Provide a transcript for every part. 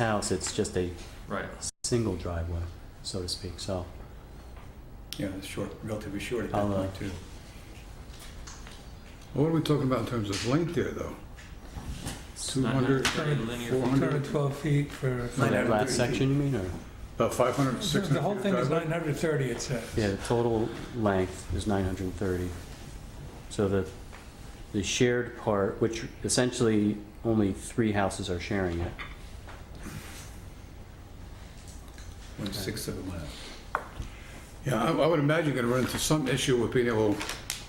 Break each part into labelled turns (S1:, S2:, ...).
S1: house, it's just a
S2: Right.
S1: single driveway, so to speak, so.
S3: Yeah, it's short, relatively short at that
S1: I'll, uh,
S3: point too.
S4: What are we talking about in terms of length here, though?
S2: It's not
S4: 200,
S2: necessarily linear.
S4: 400?
S5: 212 feet for,
S1: For that
S3: 930
S1: last section, you mean, or,
S4: About 500,
S5: the
S4: 600?
S5: whole thing is
S4: driveway?
S5: 930, it says.
S1: yeah, the total length is nine hundred and thirty. So the, the shared part, which essentially only three houses are sharing it,
S3: One sixth of a mile.
S4: Yeah, I I would imagine you're going to run into some issue with being able to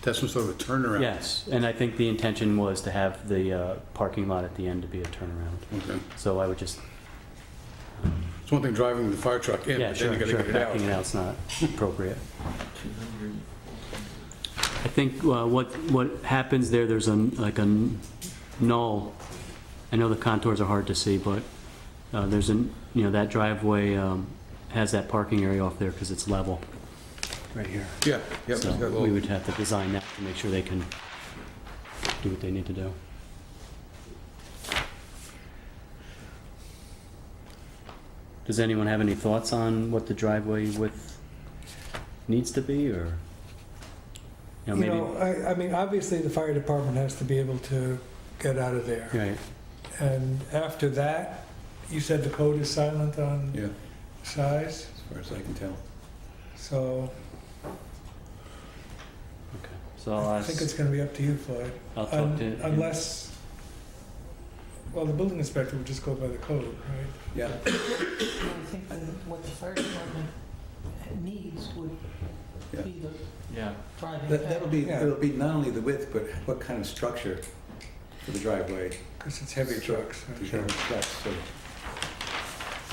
S4: have some sort of a turnaround.
S1: yes, and I think the intention was to have the, uh, parking lot at the end to be a turnaround,
S4: Okay.
S1: so I would just, um,
S4: It's one thing driving the fire truck in,
S1: yeah,
S4: but then
S1: sure,
S4: you got to
S1: sure,
S4: get it out.
S1: backing it out's not appropriate.
S2: 200.
S1: I think uh, what, what happens there, there's a, like a null, I know the contours are hard to see, but uh, there's an, you know, that driveway um, has that parking area off there because it's level. Right here.
S4: Yeah, yeah. it's
S1: So
S4: got a
S1: we
S4: little-
S1: would have to design that to make sure they can do what they need to do. Does anyone have any thoughts on what the driveway width needs to be, or? You know,
S5: You
S1: maybe,
S5: know, I, I mean, obviously, the fire department has to be able to get out of there.
S1: right,
S5: And after that, you said the code is silent on
S3: Yeah,
S5: size,
S3: as far as I can tell.
S5: so
S1: okay. So I'll
S5: I think it's
S1: ask,
S5: gonna be up to you, Floyd.
S1: I'll talk
S5: Un-
S1: to.
S5: Unless, well, the building inspector would just go by the code, right?
S3: Yeah,
S6: I think that what the fire department needs would
S3: Yeah.
S6: be the
S2: Yeah.
S6: driving
S3: that, that'll
S6: factor.
S3: be,
S5: Yeah.
S3: it'll be not only the width, but what kind of structure for the driveway.
S5: Because it's heavy trucks. right?
S3: the trucks, so.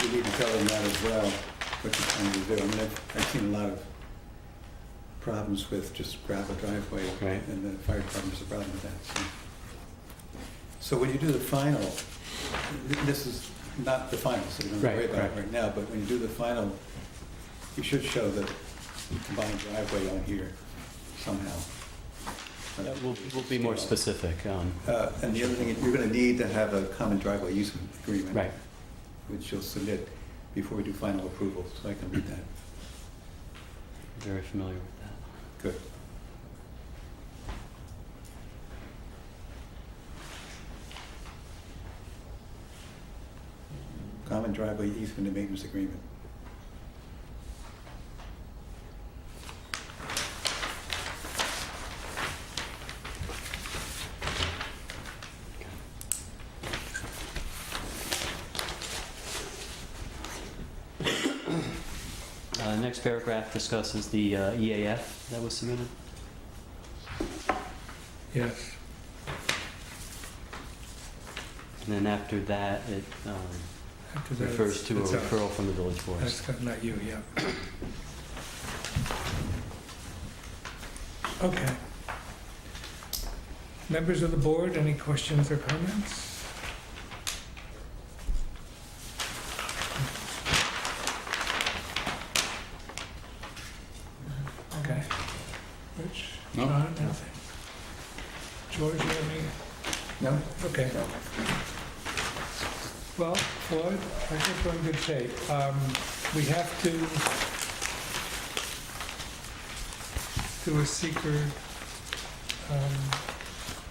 S3: You need to tell them that as well, what you're trying to do. I mean, I've, I've seen a lot of problems with just gravel driveway.
S1: Right.
S3: And the fire department's a problem with that, so. So when you do the final, th- this is not the final, so we don't have to worry
S1: Right,
S3: about it
S1: right.
S3: right now, but when you do the final, you should show the combined driveway on here somehow.
S1: Yeah, We'll, we'll be more specific, um,
S3: Uh, And the other thing, you're going to need to have a common driveway use agreement.
S1: right,
S3: Which you'll submit before we do final approval, so I can read that.
S1: very familiar with that.
S3: Good. Common driveway easement and maintenance agreement.
S1: Uh, the next paragraph discusses the uh, EAF that was submitted.
S5: Yes.
S1: And then after that, it um,
S5: After that,
S1: refers
S5: it's-
S1: to a
S5: it's out.
S1: referral from the village board.
S5: That's got- not you, yeah. Okay. Members of the board, any questions or comments? Okay. Rich?
S4: No.
S5: John, nothing? George, you have any?
S3: No?
S5: Okay. Well, Floyd, I think we're in good shape. Um, We have to do a seeker um,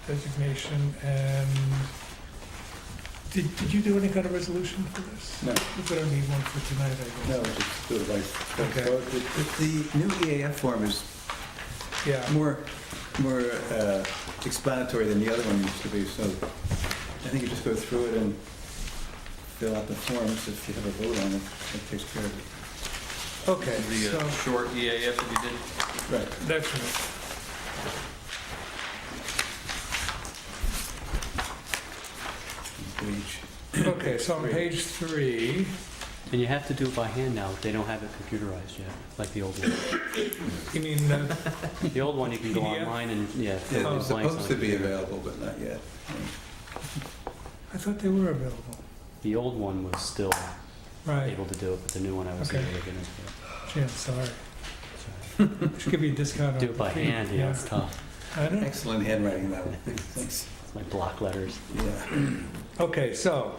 S5: designation and, did did you do any kind of resolution for this?
S3: No.
S5: We better need one for tonight, I
S3: No,
S5: guess.
S3: just do it like.
S5: Okay.
S3: So The the new EAF form is
S5: Yeah,
S3: more, more uh, explanatory than the other one used to be, so I think you just go through it and fill out the forms if you have a vote on it, that takes care of it.
S5: okay,
S2: The
S5: so,
S2: uh, short EAF that you did.
S3: Right.
S5: that's right.
S3: Page.
S5: Okay, so on page three,
S1: And you have to do it by hand now. They don't have it computerized yet, like the old one.
S5: you mean, uh,
S1: The old one, you can go
S5: PDF?
S1: online and, yeah. fill in
S3: Yeah,
S1: the
S3: they're
S1: blanks on
S3: supposed
S1: the
S3: to be
S1: computer.
S3: available, but not yet.
S5: I thought they were available.
S1: The old one was still
S5: Right,
S1: able to do it, but the new one I was
S5: Okay.
S1: able to get into.
S5: Jim, sorry.
S1: it.
S5: Just give you a discount on
S1: Do it by
S5: the fee.
S1: hand, yeah, it's tough.
S5: I know.
S3: Excellent handwriting, that one. Thanks.
S1: It's my block letters.
S3: Yeah.
S5: Okay, so